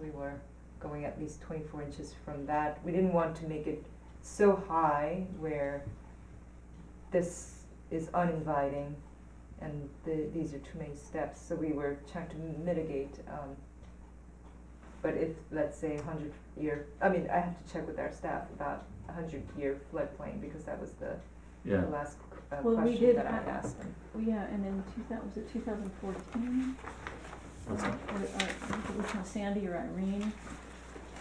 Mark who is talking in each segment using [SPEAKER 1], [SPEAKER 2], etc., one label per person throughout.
[SPEAKER 1] we were going at least twenty-four inches from that. We didn't want to make it so high where this is uninviting and the, these are too many steps, so we were trying to mitigate, um, but if, let's say, a hundred year, I mean, I have to check with our staff about a hundred year floodplain, because that was the,
[SPEAKER 2] yeah.
[SPEAKER 1] the last, uh,
[SPEAKER 3] Well, we
[SPEAKER 1] question
[SPEAKER 3] did
[SPEAKER 1] that I
[SPEAKER 3] a-
[SPEAKER 1] asked them.
[SPEAKER 3] Well, yeah, and in two thou- was it two thousand fourteen?
[SPEAKER 2] What's that?
[SPEAKER 3] Or, or, I think it was from Sandy or Irene,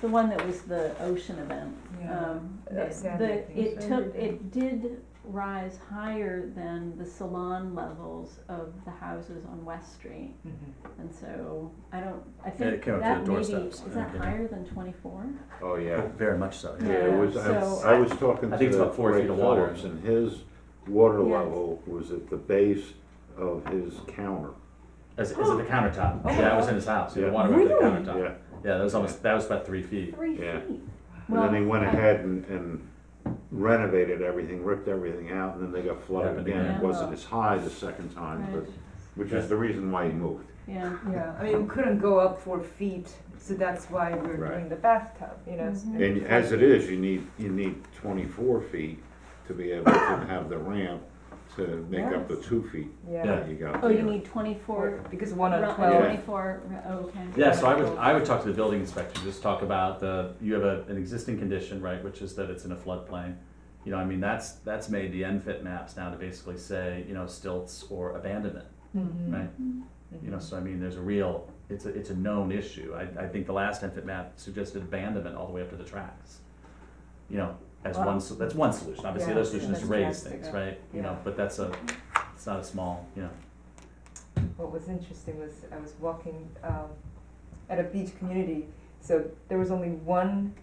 [SPEAKER 3] the one that was the ocean event. Um,
[SPEAKER 1] Uh,
[SPEAKER 3] the-
[SPEAKER 1] Sandy, I
[SPEAKER 3] the-
[SPEAKER 1] think.
[SPEAKER 3] it
[SPEAKER 1] Sandy,
[SPEAKER 3] took, it did rise higher than the salon levels of the houses on West Street.
[SPEAKER 1] Mhm.
[SPEAKER 3] And so, I don't, I
[SPEAKER 2] Yeah, it
[SPEAKER 3] think
[SPEAKER 2] came up to the
[SPEAKER 3] that maybe,
[SPEAKER 2] doorsteps,
[SPEAKER 3] is
[SPEAKER 2] I
[SPEAKER 3] that
[SPEAKER 2] think, yeah.
[SPEAKER 3] higher than twenty-four?
[SPEAKER 4] Oh, yeah.
[SPEAKER 2] Very much so.
[SPEAKER 4] Yeah,
[SPEAKER 2] Yeah.
[SPEAKER 4] it was,
[SPEAKER 3] So-
[SPEAKER 4] I, I was talking
[SPEAKER 2] I
[SPEAKER 4] to
[SPEAKER 2] think it's
[SPEAKER 4] the
[SPEAKER 2] about four feet
[SPEAKER 4] Ray
[SPEAKER 2] of water.
[SPEAKER 4] Phillips, and his water
[SPEAKER 3] Yes.
[SPEAKER 4] level was at the base of his counter.
[SPEAKER 2] As, as in the countertop.
[SPEAKER 1] Oh.
[SPEAKER 2] Yeah, I was in his house. Yeah. The
[SPEAKER 4] Yeah.
[SPEAKER 2] water went to the
[SPEAKER 1] Really?
[SPEAKER 2] countertop.
[SPEAKER 4] Yeah,
[SPEAKER 2] Yeah, that was almost that was about three feet.
[SPEAKER 3] Three
[SPEAKER 4] Yeah.
[SPEAKER 3] feet.
[SPEAKER 4] and
[SPEAKER 3] Well,
[SPEAKER 4] then he went
[SPEAKER 3] I-
[SPEAKER 4] ahead and, and renovated everything, ripped everything out, and then they got flooded
[SPEAKER 2] Happened
[SPEAKER 4] again.
[SPEAKER 2] again.
[SPEAKER 4] It wasn't as high the second time,
[SPEAKER 3] Right,
[SPEAKER 4] but, which is the reason why he moved.
[SPEAKER 3] yeah,
[SPEAKER 1] Yeah, I mean, we couldn't go up four feet, so that's why we we're
[SPEAKER 4] Right.
[SPEAKER 1] doing the bathtub, you know. so-
[SPEAKER 3] Mhm.
[SPEAKER 4] And as it is, you need, you need twenty-four feet to be able to have the ramp to make up the
[SPEAKER 1] Yes.
[SPEAKER 4] two feet
[SPEAKER 1] Yeah,
[SPEAKER 4] that you got
[SPEAKER 3] oh, you
[SPEAKER 4] there.
[SPEAKER 3] need twenty-four,
[SPEAKER 1] Or- because one
[SPEAKER 3] ru-
[SPEAKER 1] on
[SPEAKER 3] uh,
[SPEAKER 1] twelve.
[SPEAKER 3] twenty-four, ru- oh, okay.
[SPEAKER 2] Yeah, so I would I would talk to the building inspector, just talk about the you have a, an existing condition, right, which is that it's in a floodplain. You know, I mean that's that's made the NFIT maps now to basically say, you know, stilts or abandonment,
[SPEAKER 1] Mhm.
[SPEAKER 2] right? You know, so I mean there's a real it's a it's a known issue. I, I think the last NFIT map suggested abandonment all the way up to the tracks. You know, as
[SPEAKER 1] Wow.
[SPEAKER 2] one so that's one solution. Obviously
[SPEAKER 1] Yeah,
[SPEAKER 2] the other solution
[SPEAKER 1] and
[SPEAKER 2] is to
[SPEAKER 1] that's
[SPEAKER 2] raise
[SPEAKER 1] drastic,
[SPEAKER 2] things,
[SPEAKER 1] yeah.
[SPEAKER 2] right? You know,
[SPEAKER 1] Yeah.
[SPEAKER 2] but that's a it's not a small, you know.
[SPEAKER 1] What was interesting was I was walking um, at a beach community, so there was only one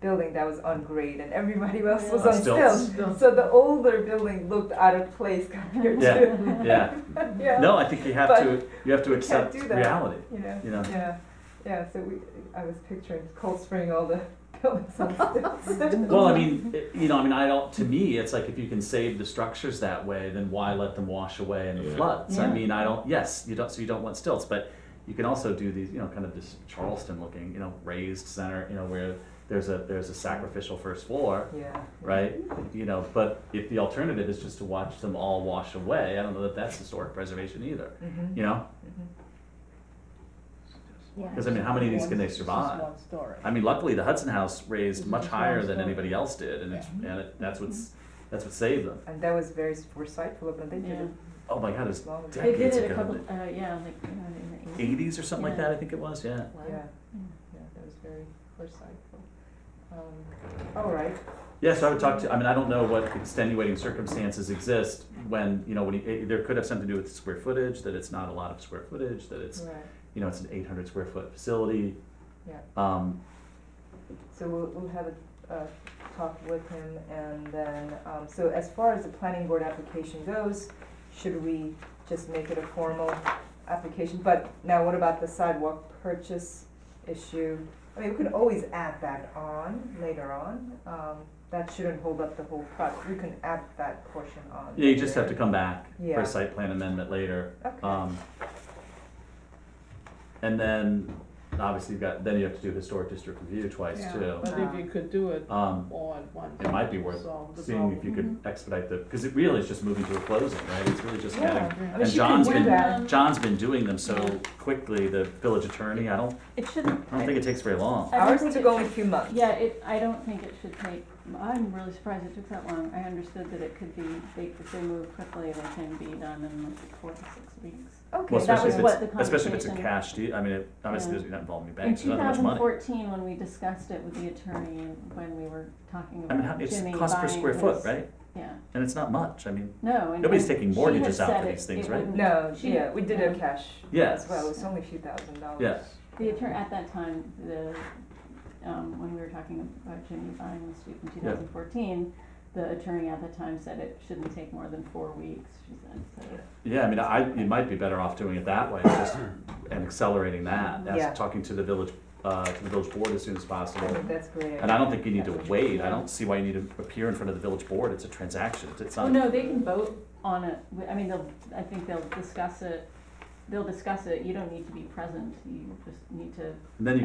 [SPEAKER 1] building that was on grade, and everybody else was
[SPEAKER 2] On
[SPEAKER 1] on
[SPEAKER 2] stilts.
[SPEAKER 1] stilts. So the older building looked out of place compared
[SPEAKER 2] Yeah.
[SPEAKER 1] to
[SPEAKER 2] Yeah.
[SPEAKER 1] yeah,
[SPEAKER 2] No, I think you have
[SPEAKER 1] But
[SPEAKER 2] to you have to accept
[SPEAKER 1] do that.
[SPEAKER 2] reality.
[SPEAKER 1] you know,
[SPEAKER 2] You know,
[SPEAKER 1] yeah, yeah. So we, I was picturing Cold Spring, all the buildings on stilts.
[SPEAKER 2] well, I mean, it- you know, I mean, I don't. To me, it's like if you can save the structures that way, then why let them wash away in the
[SPEAKER 4] Yeah.
[SPEAKER 2] floods? I
[SPEAKER 3] Yeah.
[SPEAKER 2] mean, I don't. Yes, you don't. So you don't want stilts, but you can also do these, you know, kind of this Charleston-looking, you know, raised center, you know, where there's a there's a sacrificial first floor,
[SPEAKER 1] yeah,
[SPEAKER 2] right? You know, but if the alternative is just to watch them all wash away, I don't know that that's historic preservation either.
[SPEAKER 1] Mm-hmm.
[SPEAKER 2] You know,
[SPEAKER 3] Yeah.
[SPEAKER 2] because I mean, how many of these can they survive?
[SPEAKER 5] It's just one story.
[SPEAKER 2] I mean, luckily the Hudson House raised
[SPEAKER 5] Mhm.
[SPEAKER 2] much higher than anybody else did, and it's, and it, that's what's that's what saved them.
[SPEAKER 1] And that was very foresightful of them. They did
[SPEAKER 3] Yeah.
[SPEAKER 1] it
[SPEAKER 2] Oh my God, it was
[SPEAKER 1] long ago.
[SPEAKER 3] They did
[SPEAKER 2] Decades
[SPEAKER 3] it a
[SPEAKER 2] ago,
[SPEAKER 3] couple,
[SPEAKER 2] but-
[SPEAKER 3] uh, yeah, like, you know, in the eighties.
[SPEAKER 2] eighties or something like
[SPEAKER 3] Yeah.
[SPEAKER 2] that. I think it was. Yeah.
[SPEAKER 1] Yeah, yeah, that was very foresightful. Um, all right,
[SPEAKER 2] Yeah. So I would talk to. I mean, I don't know what extenuating circumstances exist when you know when you, it, there could have something to do with square footage. That it's not a lot of square footage. That it's
[SPEAKER 1] right.
[SPEAKER 2] you know it's an eight hundred square foot facility.
[SPEAKER 1] Mm. Yeah.
[SPEAKER 2] Um,
[SPEAKER 1] So we'll, we'll have a, a talk with him and then, um, so as far as the planning board application goes, should we just make it a formal application? But now what about the sidewalk purchase issue? I mean, we can always add that on later on. Um, that shouldn't hold up the whole project. We can add that portion on.
[SPEAKER 2] yeah. You just have to come back for
[SPEAKER 1] Yeah.
[SPEAKER 2] a site plan amendment later.
[SPEAKER 1] Okay,
[SPEAKER 2] Um, and then obviously you've got then you have to do historic district review twice
[SPEAKER 5] Yeah,
[SPEAKER 2] too.
[SPEAKER 5] But if you could do it
[SPEAKER 2] Um,
[SPEAKER 5] all at once.
[SPEAKER 2] it might be worth
[SPEAKER 5] solve the
[SPEAKER 2] seeing if you could expedite the because it really is just moving to a closing, right? It's really just
[SPEAKER 1] yeah. I
[SPEAKER 2] getting
[SPEAKER 1] mean,
[SPEAKER 2] and
[SPEAKER 1] she can
[SPEAKER 2] John's
[SPEAKER 1] do
[SPEAKER 2] been-
[SPEAKER 1] that.
[SPEAKER 2] John's been doing them so quickly, the village attorney, I don't,
[SPEAKER 3] It shouldn't.
[SPEAKER 2] I don't think it takes very long.
[SPEAKER 3] I don't
[SPEAKER 1] Ours
[SPEAKER 3] think
[SPEAKER 1] took
[SPEAKER 3] it
[SPEAKER 1] only a
[SPEAKER 3] should-
[SPEAKER 1] few months.
[SPEAKER 3] Yeah, it, I don't think it should take, I'm really surprised it took that long. I understood that it could be, they, if they move quickly, they can be done in like four to six weeks.
[SPEAKER 1] Okay,
[SPEAKER 2] Well,
[SPEAKER 3] that
[SPEAKER 2] especially
[SPEAKER 3] was
[SPEAKER 2] if
[SPEAKER 3] what
[SPEAKER 2] it's,
[SPEAKER 3] the
[SPEAKER 2] especially if it's a
[SPEAKER 3] conversation-
[SPEAKER 2] cash deal, I mean, it obviously
[SPEAKER 3] Yeah.
[SPEAKER 2] doesn't involve any
[SPEAKER 3] In
[SPEAKER 2] banks,
[SPEAKER 3] two
[SPEAKER 2] not that
[SPEAKER 3] thousand
[SPEAKER 2] much money.
[SPEAKER 3] fourteen, when we discussed it with the attorney, when we were talking
[SPEAKER 2] I mean, how-
[SPEAKER 3] about
[SPEAKER 2] it's
[SPEAKER 3] Jimmy buying
[SPEAKER 2] cost per square foot,
[SPEAKER 3] his-
[SPEAKER 2] right?
[SPEAKER 3] Yeah,
[SPEAKER 2] And it's not much, I mean,
[SPEAKER 3] no, and.
[SPEAKER 2] Nobody's
[SPEAKER 3] and
[SPEAKER 2] taking
[SPEAKER 3] she had
[SPEAKER 2] mortgages out for
[SPEAKER 3] said
[SPEAKER 2] these
[SPEAKER 3] it-
[SPEAKER 2] things,
[SPEAKER 3] it
[SPEAKER 2] right?
[SPEAKER 3] wouldn't-
[SPEAKER 1] No,
[SPEAKER 3] she-
[SPEAKER 1] yeah, we did a
[SPEAKER 3] yeah.
[SPEAKER 1] cash
[SPEAKER 2] yes.
[SPEAKER 1] as well, it's only a few thousand dollars.
[SPEAKER 2] Yeah.
[SPEAKER 3] The attorney, at that time, the, um, when we were talking about Jimmy buying the street in two
[SPEAKER 2] Yeah.
[SPEAKER 3] thousand fourteen, the attorney at the time said it shouldn't take more than four weeks, she said, so.
[SPEAKER 2] Yeah, I mean, I, you might be better off doing it that way, just, and accelerating that,
[SPEAKER 1] Yeah.
[SPEAKER 2] as, talking to the village, uh, to the village board as soon as
[SPEAKER 1] I
[SPEAKER 2] possible.
[SPEAKER 1] think that's great.
[SPEAKER 2] And I don't think you need to wait, I don't see why you need to appear in front of the village board, it's a transaction, It's- it's
[SPEAKER 3] Oh,
[SPEAKER 2] not.
[SPEAKER 3] no, they can vote on it, We- I mean, they'll, I think they'll discuss it, they'll discuss it, you don't need to be present, you just need to
[SPEAKER 2] And then you